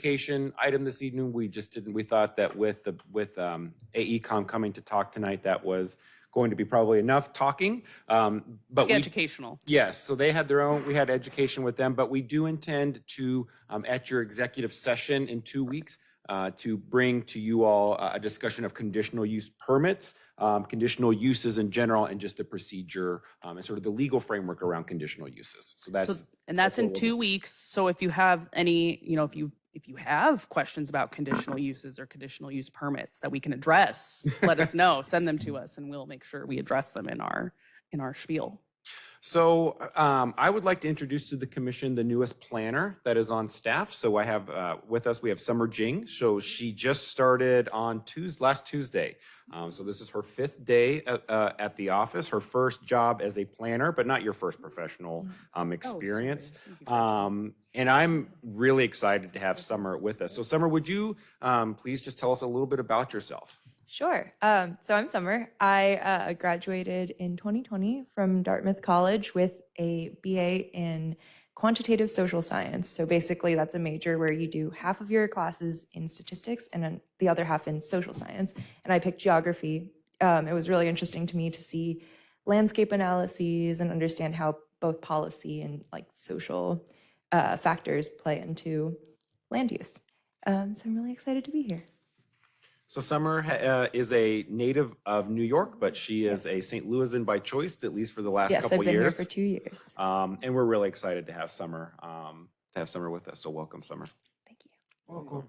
education item this evening. We just didn't, we thought that with the, with um, AECom coming to talk tonight, that was going to be probably enough talking. Um, But we Educational. Yes, so they had their own, we had education with them, but we do intend to, um, at your executive session in two weeks, uh, to bring to you all a a discussion of conditional use permits, um, conditional uses in general, and just the procedure, um, and sort of the legal framework around conditional uses. So So, that's, and that's that's what in we'll two just- weeks. So if you have any, you know, if you, if you have questions about conditional uses or conditional use permits that we can address, let us know, send them to us and we'll make sure we address them in our, in our spiel. so, um, I would like to introduce to the commission the newest planner that is on staff. So I have, uh, with us, we have Summer Jing. So she just started on Tuesday, last Tuesday. Um, so this is her fifth day uh, uh, at the office, her first job as a planner, but not your first professional um, experience. Um, and I'm really excited to have Summer with us. So Summer, would you um, please just tell us a little bit about yourself? Sure. Um, so I'm Summer. I uh, graduated in 2020 from Dartmouth College with a BA in quantitative social science. So basically, that's a major where you do half of your classes in statistics and then the other half in social science. And I picked geography. Um, it was really interesting to me to see landscape analyses and understand how both policy and like social uh, factors play into land use. Um, so I'm really excited to be here. So Summer ha- uh, is a native of New York, but she is Yes. a St. Louisan by choice, at least for the last Yes, I've couple been here years. for two years. um, and we're really excited to have Summer um, to have Summer with us. So welcome, Summer. Thank you. Welcome.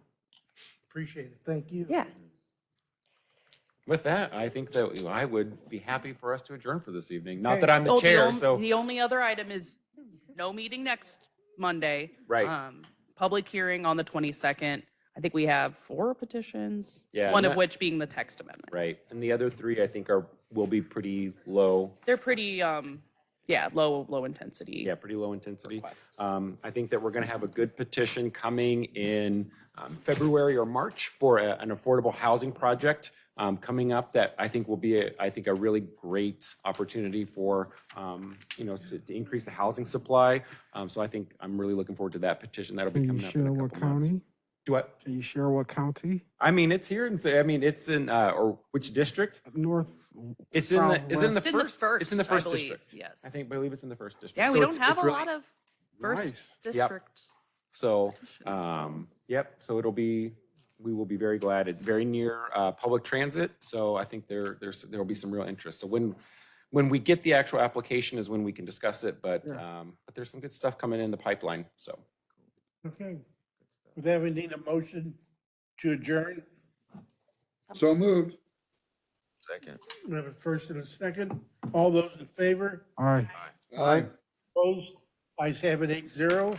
Appreciate it. Thank you. Yeah. With that, I think that I would be happy for us to adjourn for this evening. Not Okay. that I'm the Oh, chair, on- so The only other item is no meeting next Monday. Right. Um, Public hearing on the 22nd. I think we have four petitions. Yeah, One and of that- which being the text amendment. right. And the other three, I think, are will be pretty low They're pretty, um, yeah, low, low intensity. Yeah, pretty low intensity. Um, I think that we're going to have a good petition coming in um, February or March for a- an affordable housing project um, coming up that I think will be, a- I think, a really great opportunity for, um, you know, to to increase the housing supply. Um, So I think I'm really looking forward to that petition. That'll Are be you coming up in sure a what couple months. county? Do I, Are you sure what county? I mean, it's here and say, I mean, it's in, uh, or which district? North. It's in the, it's in the It's in the first, first. it's in the I first believe, district. Yes. I think, believe it's in the first district. Yeah, So we it's- don't have it's a really- lot of Nice. first Yep. district. So, so- um, yep, so it'll be, we will be very glad. It's very near, uh, public transit, so I think there, there's, there'll be some real interest. So when, when we get the actual application is when we can discuss it, but, Yeah. um, but there's some good stuff coming in the pipeline, so. Okay. Would that we need a motion to adjourn? So moved. We have a first and a second. All those in favor? Aye. Aye. Opposed? Ayes have it eight zero.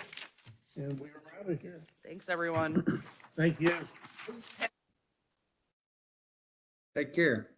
And we are out of here. Thanks, everyone. Thank you. Take care.